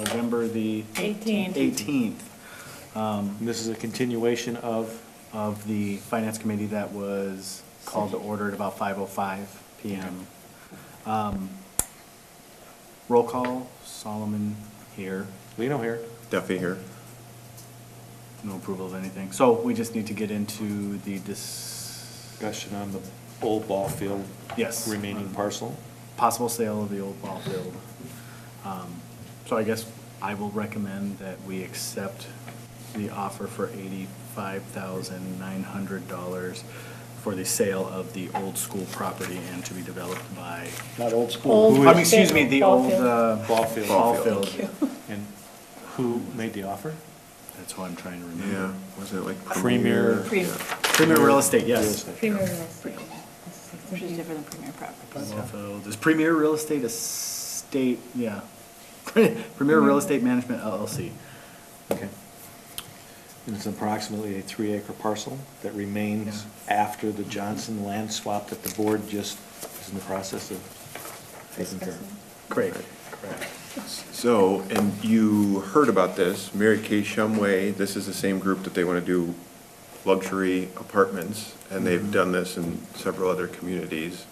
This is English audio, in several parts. November the 18. 18th. Um, This is a continuation of, of the Finance Committee that was called to order at about 5:05 PM. Um, Roll call, Solomon here, Lino here. Duffy here. no approval of anything. So we just need to get into the dis, Discussion on the old ball field. Yes. Remaining parcel. possible sale of the old ball field. Um, So I guess I will recommend that we accept the offer for eighty-five thousand nine hundred dollars for the sale of the old school property and to be developed by, Not old school. Old I mean, excuse me, the ball old, field. uh, Ball field. ball Ball field. field. And who made the offer? That's what I'm trying to Yeah, remember. wasn't it like Premier- Premier? Pre- Yeah. Premier Real Estate, Real yes. estate. Premier real estate. Which is different than premier property. Ball field. Is Premier Real Estate a state, yeah. Mm-hmm. Premier Real Estate Management LLC. Okay. And it's approximately a three acre parcel that remains after the Johnson land swap that the board just is in the process of taking care of. Great, correct. So, and you heard about this, Mary Kay Shumway, this is the same group that they want to do luxury apartments, and Mm-hmm. they've done this in several other communities.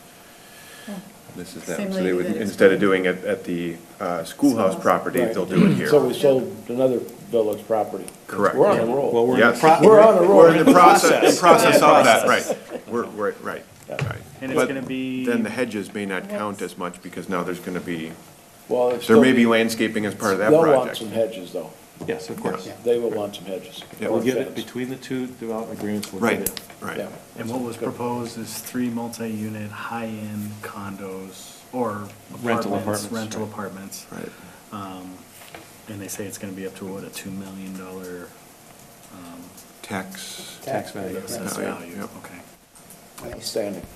This is them, Same so they lady would, that- instead of doing it at the uh, schoolhouse Schoolhouse. property, they'll do it So we here. sold another village property. Correct. We're on a Well, roll. we're in the Yes. pro- We're on a roll. We're in the process, in process of that, Process. right. We're, we're- right, right. And it's But gonna be- Then the hedges may not count as much, because now there's going to be, Well, it's there may still- be landscaping as part of that They'll want project. some hedges, though. Yes, of course. They will want some hedges. Yeah. We'll get it Fence. between the two development agreements. we'll get Right, it. right. Yeah. And what was proposed is three multi-unit, high-end condos or apartments, Rental apartments, rental right. apartments. Right. Um, And they say it's gonna be up to, what, a two million dollar Tax. Tax value. assessed Value, value, yep. okay. Outstanding.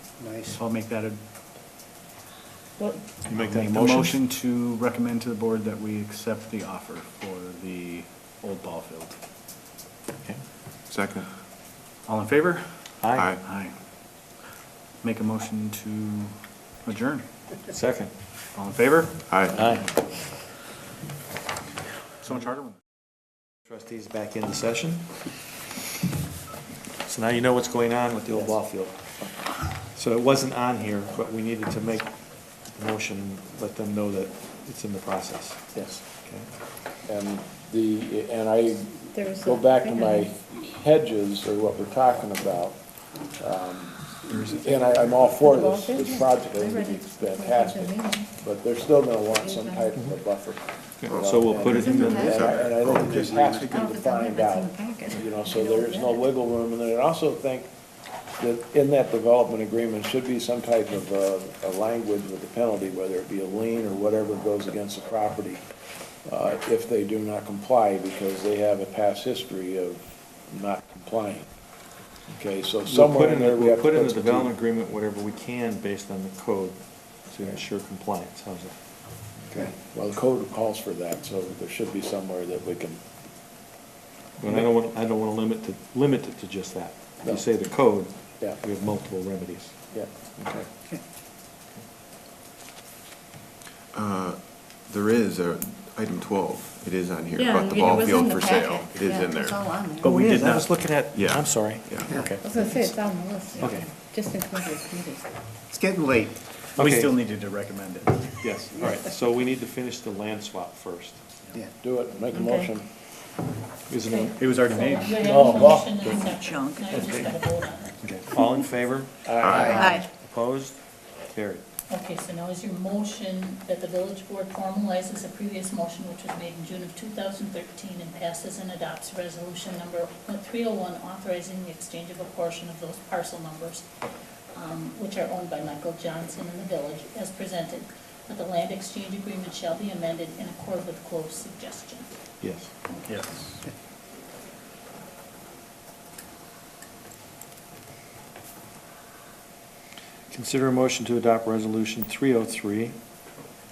So I'll make that a. Well, You make that I'll a the motion? Motion to recommend to the board that we accept the offer for the old ball field. Okay. Second. All in favor? Aye. Aye. Make a motion to adjourn. Second. All in favor? Aye. So much harder one. Trustees back in the session. So now you know what's going on with the old ball field. So it wasn't on here, but we needed to make the motion, and let them know that it's in the process. Yes. Okay. And the, and I There was go a- back to my hedges, or what we're talking about. um, And I, I'm all for this, this project, I think it's fantastic, but they're still gonna want some type of a buffer. So we'll put it in the, And I, and I think it just has to be Oh, it's on defined there, it's in out, the packet. you know, so there is no wiggle room, and then I also think that in that development agreement should be some type of uh, a, a language with a penalty, whether it be a lien or whatever goes against the property, uh, if they do not comply, because they have a past history of not complying. Okay, so we'll put somewhere in, in the- there, we have we'll to put in the some- development agreement whatever we can based on the code to ensure compliance. How's that? Okay, well, the code calls for that, so there should be somewhere that we can, But I don't want, I don't want to limit, to limit it to just that. If you say the code, Yeah. we have multiple remedies. yeah, okay. Uh, There is a, item 12, it is on here, Yeah, about the it ball was in field the for sale. packet. It is Yeah, in It's all there. on there. But we It did is, I was not, looking at, Yeah. I'm sorry. Yeah. Okay. I was gonna say, it's on the list. Okay. Just in case it's needed. it's getting late. We Okay. still needed to recommend it. Yes, all right, so we need to finish the land swap first. Do it, make a Okay. motion. Isn't it? It was already made. Oh, well. Junk. Okay. All in favor? Aye. Opposed? Carried. Okay, so now is your motion that the village board formalizes a previous motion which was made in June of 2013 and passes and adopts resolution number 301 authorizing the exchange of a portion of those parcel numbers, um, which are owned by Michael Johnson and the village, as presented, that the land exchange agreement shall be amended in accord with Clove's suggestion. Yes. Yes. Consider a motion to adopt Resolution 303,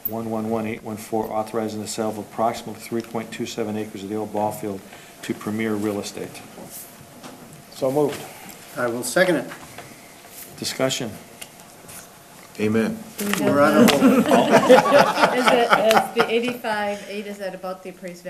111814, authorizing the sale of approximately 3.27 acres of the old ball field to Premier Real Estate. So moved. I will second it. Discussion. Amen. Do we have We're on a roll. the- Is it, is the eighty-five, eight, is that about the appraised value